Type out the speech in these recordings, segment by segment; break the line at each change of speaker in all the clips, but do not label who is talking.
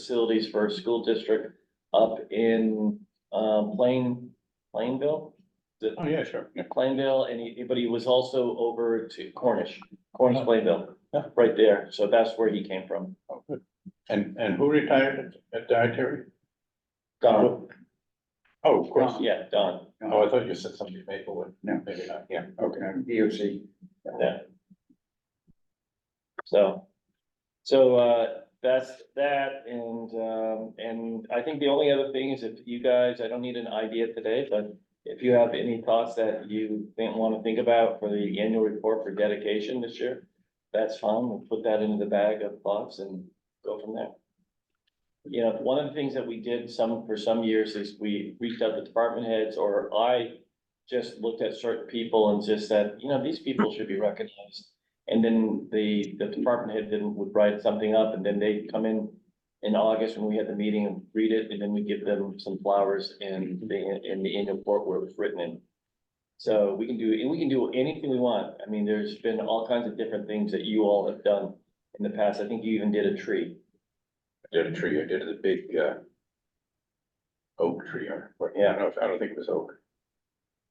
facilities for a school district up in, um, Plain, Plainville? The-
Oh, yeah, sure. Yeah.
Plainville, and he, but he was also over to Cornish,
Oh.
Cornish Plainville,
Yeah.
right there, so that's where he came from.
Oh, good. And, and who retired at at dietary?
Don,
Oh, of course.
yeah, Don,
Oh, I thought you said somebody Maplewood.
No.
Maybe not, yeah.
Okay, DOC.
yeah. So, so, uh, that's that, and, um, and I think the only other thing is if you guys, I don't need an idea today, but if you have any thoughts that you think, wanna think about for the annual report for dedication this year, that's fine, we'll put that into the bag of thoughts and go from there. You know, one of the things that we did some, for some years is we reached out to department heads, or I just looked at certain people and just said, you know, these people should be recognized. And then the, the department head then would write something up and then they come in in August when we had the meeting and read it, and then we give them some flowers in the, in the annual report where it was written in. So we can do, and we can do anything we want. I mean, there's been all kinds of different things that you all have done in the past. I think you even did a tree.
I Did a tree, I did the big, uh, oak tree, or, or- I don't know, if- I don't think it was oak,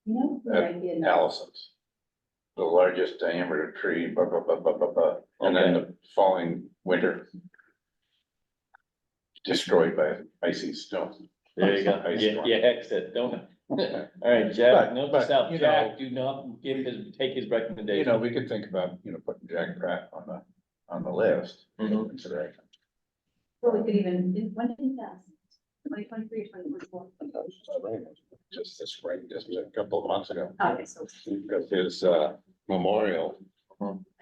No,
Uh,
I didn't.
Allison's. The largest diameter tree, blah, blah, blah, blah, blah, blah, and then the following winter. Destroyed by icy snow.
There you go.
Ice
Yeah,
storm.
yeah, exit, don't. All right, Jack,
But-
note
but,
this out.
you
Jack,
know,
do not give his, take his
You know,
recommendation.
we could think about, you know, putting Jack Pratt on the, on the list. for
Mhm.
consideration.
Well, we could even, did- when did that? Twenty twenty-three, twenty twenty-four.
Just this spring, just a couple of months ago.
Oh, Okay, so,
Because his uh memorial,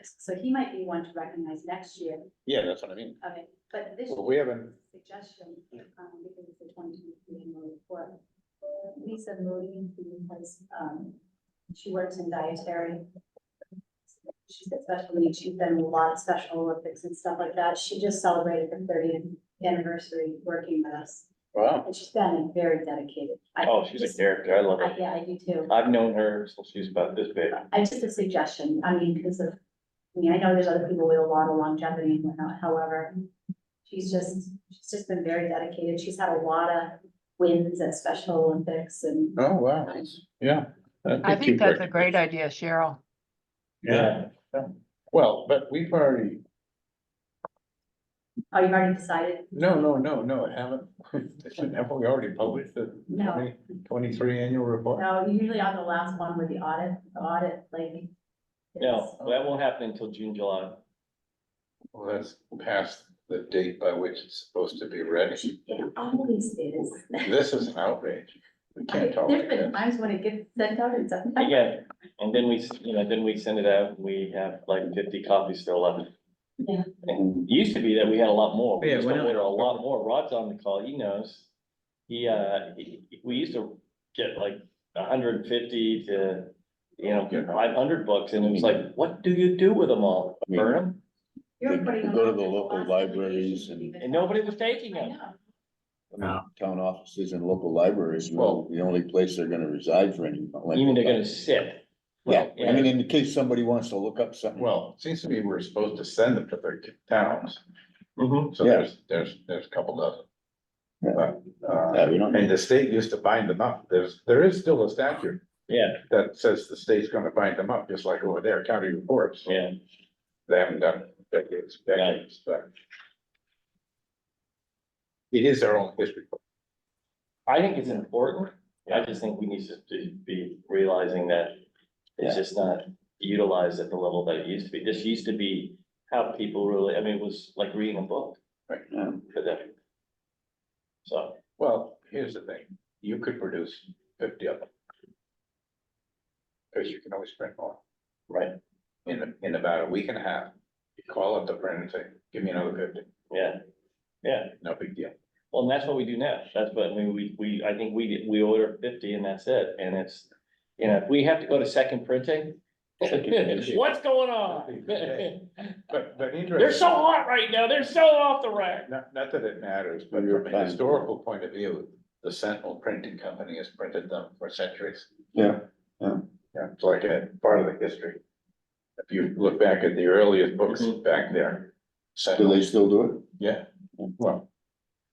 so he might be one to recognize next year,
yeah, that's what I mean.
okay, but this
Well, we haven't,
suggestion, um, because it's the twenty twenty-three annual report. Lisa Moody, who has, um, she works in dietary. She's got special needs, she's done a lot of Special Olympics and stuff like that, she just celebrated her thirtieth anniversary working with us,
wow,
and she's been very dedicated. I-
Oh, she's a character. I love
I-
her.
Yeah, I do too.
I've known her since she was about this big.
I just a suggestion, I mean, because of, I mean, I know there's other people with a lot of longevity and whatnot, however. She's just, she's just been very dedicated, she's had a lot of wins at Special Olympics and.
oh, wow, yeah.
I think
you've
that's a great
recognized-
idea, Cheryl.
Yeah, well, but we've already,
Oh, you've already decided?
no, no, no, no, I haven't. Haven't we already published the
No.
20 23 annual report?
No, usually on the last one with the audit, the audit, like.
No, that won't happen until June, July.
Well, that's past the date by which it's supposed to be ready.
it's- It always is.
This is an outrage. We can't talk
There's
like
been
this.
times when it gets sent out and something.
Again, and then we, s- you know, then we send it out, and we have like fifty copies still left.
Yeah.
And it used to be that we had a lot more, we
Yeah,
used
why
to
not?
order a lot more, Rod's on the call, he knows. He, uh, he- he- we used to get like hundred and fifty to, you know,
Yeah.
five hundred books, and it was like, what do you do with them all? Burn them?
You're
They
putting
go to
on
the local
last
libraries
delegation,
and-
even-
And nobody was taking
I
them.
know.
I mean, Town offices and local libraries, well, the only place they're gonna reside for any.
You mean they're gonna sit?
Yeah, I
Yeah.
mean, in case somebody wants to look up something.
Well, it seems to me we're supposed to send them to their towns.
Mhm.
So
Yeah.
there's, there's, there's a couple dozen.
Yeah.
But,
Yeah,
uh,
we don't,
and the state used to bind them up. There's, there is still a statute
Yeah,
that says the state's gonna bind them up, just like over there, county reports.
yeah,
They haven't done it in decades, decades, but. It is their own history. book.
I think it's important, I just think we need to be- be realizing that it's
Yeah.
just not utilized at the level that it used to be, this used to be how people really, I mean, it was like reading a book
um,
for them. So,
Well, here's the thing, you could produce fifty of them. Cause you can always print more.
Right.
In, in about a week and a half, you call up the printer and say, give me another fifty,
yeah, yeah,
no big deal.
well, and that's what we do now, that's what, I mean, we, we, I think we, we order fifty and that's it, and it's, you know, if we have to go to second printing, what's going on?
But, but interesting.
They're so hot right now, they're so off the rack.
Not, not that it matters, but
You're
from a
fine.
historical point of view, the Sentinel Printing Company has printed them for centuries.
Yeah,
Yeah, it's like a part of the history. Mm-hmm. If you look back at the earliest books
Mhm.
back there.
do
Sentinel,
they still do
yeah, well,